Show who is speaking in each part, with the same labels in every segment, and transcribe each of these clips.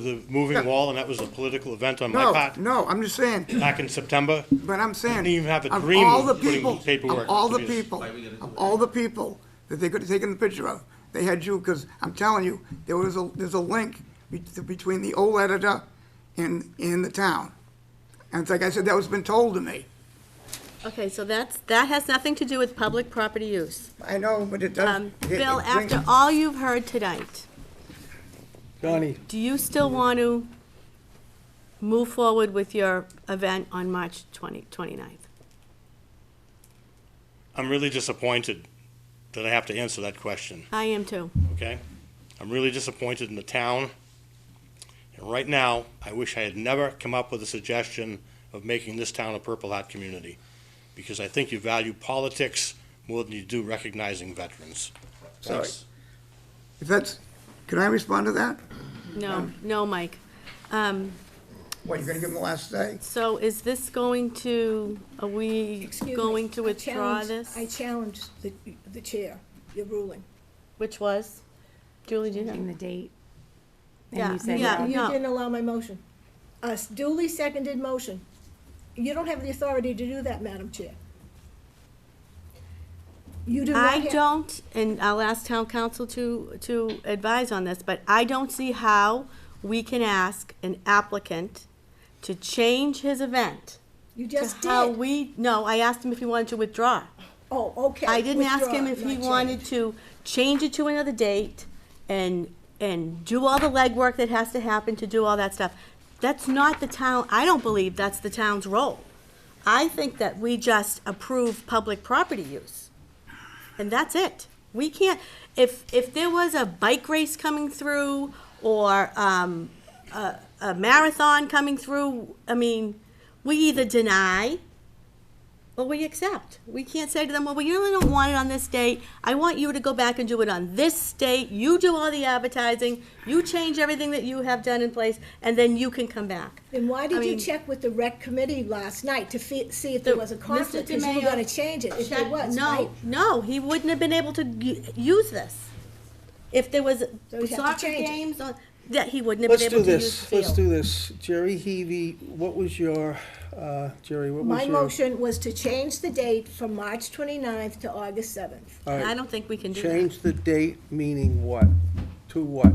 Speaker 1: the moving wall, and that was a political event on my
Speaker 2: No,
Speaker 1: part
Speaker 2: no, I'm just saying,
Speaker 1: back in September.
Speaker 2: but I'm saying,
Speaker 1: Didn't even have a
Speaker 2: of
Speaker 1: dream
Speaker 2: all
Speaker 1: of
Speaker 2: the
Speaker 1: putting
Speaker 2: people,
Speaker 1: paperwork
Speaker 2: of all the
Speaker 1: to this.
Speaker 2: people, of all the people that they could have taken the picture of, they had you, because I'm telling you, there was a, there's a link be- between the old editor and, and the town. And it's like I said, that was been told to me.
Speaker 3: Okay, so that's, that has nothing to do with public property use.
Speaker 2: I know, but it does.
Speaker 3: Um,
Speaker 2: it- it
Speaker 3: Bill,
Speaker 2: brings-
Speaker 3: after all you've heard tonight,
Speaker 4: Donnie,
Speaker 3: do you still want to move forward with your event on March 20, 29th?
Speaker 1: I'm really disappointed that I have to answer that question,
Speaker 3: I am too.
Speaker 1: okay? I'm really disappointed in the town. And right now, I wish I had never come up with a suggestion of making this town a Purple Hat community, because I think you value politics more than you do recognizing veterans.
Speaker 2: Sorry.
Speaker 1: That's-
Speaker 2: If that's, can I respond to that?
Speaker 3: No, no, Mike. Um,
Speaker 2: What, you're gonna give them the last say?
Speaker 3: So is this going to, are we
Speaker 5: Excuse me,
Speaker 3: going to
Speaker 5: I
Speaker 3: withdraw
Speaker 5: challenge-
Speaker 3: this?
Speaker 5: I challenge the, the chair, your ruling.
Speaker 3: Which was? Julie, do you
Speaker 6: changing
Speaker 3: have?
Speaker 6: the date.
Speaker 3: Yeah,
Speaker 6: And you said,
Speaker 3: yeah.
Speaker 6: no.
Speaker 5: You
Speaker 3: Uh, no.
Speaker 5: didn't allow my motion. A duly seconded motion. You don't have the authority to do that, Madam Chair. You do not
Speaker 3: I
Speaker 5: have.
Speaker 3: don't, and I'll ask town council to, to advise on this, but I don't see how we can ask an applicant to change his event.
Speaker 5: You
Speaker 3: to
Speaker 5: just
Speaker 3: How
Speaker 5: did.
Speaker 3: we, no, I asked him if he wanted to withdraw.
Speaker 5: Oh, okay.
Speaker 3: I didn't ask him
Speaker 5: Withdraw,
Speaker 3: if he
Speaker 5: not
Speaker 3: wanted
Speaker 5: change.
Speaker 3: to change it to another date and, and do all the legwork that has to happen to do all that stuff. That's not the town, I don't believe that's the town's role. I think that we just approve public property use. And that's it. We can't, if, if there was a bike race coming through or, um, a, a marathon coming through, I mean, we either deny well, we accept. We can't say to them, well, we really don't want it on this date. I want you to go back and do it on this date. You do all the advertising, you change everything that you have done in place, and then you can come back.
Speaker 5: Then why did you
Speaker 3: mean-
Speaker 5: check with the rec committee last night to fe- see if there was a
Speaker 3: Mr.
Speaker 5: conflict? Because you were
Speaker 3: DeMayo
Speaker 5: gonna change it, if there
Speaker 3: checked-
Speaker 5: was, right?
Speaker 3: No, no, he wouldn't have been able to u- use this. If there was
Speaker 5: he'd have to
Speaker 3: soccer
Speaker 5: change it.
Speaker 3: games on, that he wouldn't have
Speaker 4: let's
Speaker 3: been
Speaker 4: do
Speaker 3: able to use the
Speaker 4: this,
Speaker 3: field.
Speaker 4: let's do this. Jerry Heavy, what was your, uh, Jerry, what was
Speaker 5: My
Speaker 4: your?
Speaker 5: motion was to change the date from March 29th to August 7th.
Speaker 4: All right,
Speaker 3: I don't think we can do that.
Speaker 4: Change the date, meaning what? To what?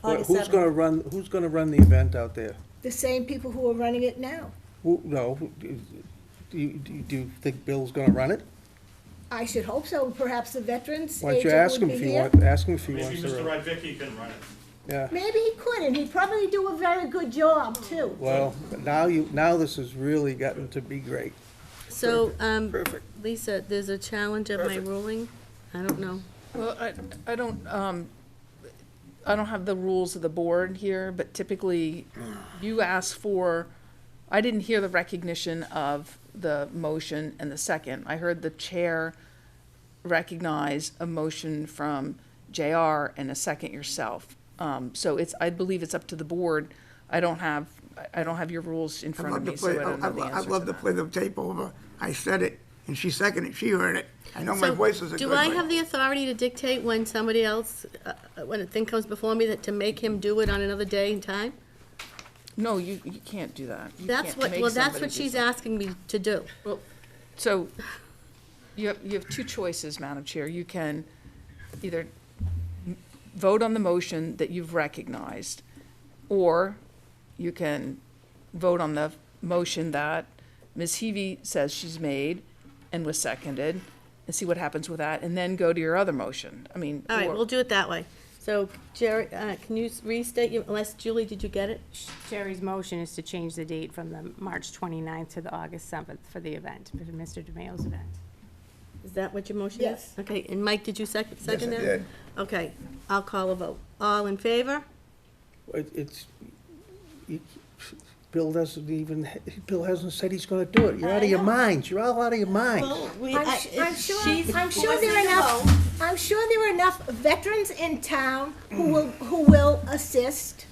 Speaker 4: What-
Speaker 3: August
Speaker 4: Who's
Speaker 3: 7th.
Speaker 4: gonna run, who's gonna run the event out there?
Speaker 5: The same people who are running it now.
Speaker 4: Who, no, who- do you, do you- do you think Bill's gonna run it?
Speaker 5: I should hope so, perhaps the veterans
Speaker 4: Why don't you
Speaker 5: agent
Speaker 4: ask him
Speaker 5: would
Speaker 4: if
Speaker 5: be
Speaker 4: you
Speaker 5: here.
Speaker 4: want, ask him if he
Speaker 1: Maybe
Speaker 4: wants to
Speaker 1: Mr.
Speaker 4: run it.
Speaker 1: Radvicki can run it.
Speaker 4: Yeah,
Speaker 5: Maybe he could, and he'd probably do a very good job, too.
Speaker 4: well, but now you, now this has really gotten to be great.
Speaker 3: So, um,
Speaker 4: Perfect.
Speaker 3: Lisa, there's a challenge of my ruling. I don't know.
Speaker 7: Well, I, I don't, um, I don't have the rules of the board here, but typically you ask for, I didn't hear the recognition of the motion and the second. I heard the chair recognize a motion from JR and a second yourself. Um, so it's, I believe it's up to the board. I don't have, I- I don't have your rules in
Speaker 2: I'd
Speaker 7: front of
Speaker 2: love to
Speaker 7: me, so I
Speaker 2: play,
Speaker 7: don't know
Speaker 2: I'd
Speaker 7: the
Speaker 2: I'd
Speaker 7: answer
Speaker 2: love
Speaker 7: to
Speaker 2: to
Speaker 7: that.
Speaker 2: play the tape over. I said it, and she seconded, it. she heard it. I know my
Speaker 3: So,
Speaker 2: voice is a good
Speaker 3: Do I have
Speaker 2: one.
Speaker 3: the authority to dictate when somebody else, uh, uh, when a thing comes before me, that to make him do it on another day and time?
Speaker 7: No, you, you can't do that. You
Speaker 3: That's
Speaker 7: can't
Speaker 3: what,
Speaker 7: make
Speaker 3: well, that's
Speaker 7: somebody
Speaker 3: what
Speaker 7: do
Speaker 3: she's
Speaker 7: something.
Speaker 3: asking me to do.
Speaker 7: So you have, you have two choices, Madam Chair. You can either m- vote on the motion that you've recognized, or you can vote on the motion that Ms. Heavy says she's made and was seconded, and see what happens with that, and then go to your other motion. I mean.
Speaker 3: All right,
Speaker 7: or-
Speaker 3: we'll do it that way. So Jerry, uh, can you restate, your- unless Julie, did you get it?
Speaker 6: Jerry's motion is to change the date from the March 29th to the August 7th for the event, for Mr. DeMayo's event.
Speaker 3: Is that what your motion is?
Speaker 5: Yes.
Speaker 3: Okay, and Mike, did you second, second
Speaker 2: I
Speaker 3: that?
Speaker 2: did.
Speaker 3: Okay, I'll call a vote. All in favor?
Speaker 4: It- It's, you- Bill doesn't even, Bill hasn't said he's gonna do it. You're out of your minds. You're all out of your minds.
Speaker 3: we,
Speaker 5: I'm su- I'm sure, I'm sure there are enough, I'm sure there are enough veterans in town who
Speaker 4: Hmm.
Speaker 5: will, who will assist.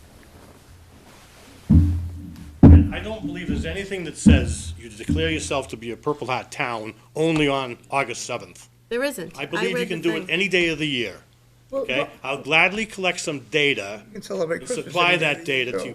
Speaker 1: I don't believe there's anything that says you declare yourself to be a Purple Hat town only on August 7th.
Speaker 3: There isn't.
Speaker 1: I believe you
Speaker 3: read
Speaker 1: can
Speaker 3: the
Speaker 1: do it
Speaker 3: thing.
Speaker 1: any day of the year.
Speaker 5: Well,
Speaker 1: okay? I'll gladly collect some data
Speaker 2: You can celebrate
Speaker 1: and
Speaker 2: Christmas
Speaker 1: supply
Speaker 2: every day.
Speaker 1: that data to
Speaker 2: Yeah.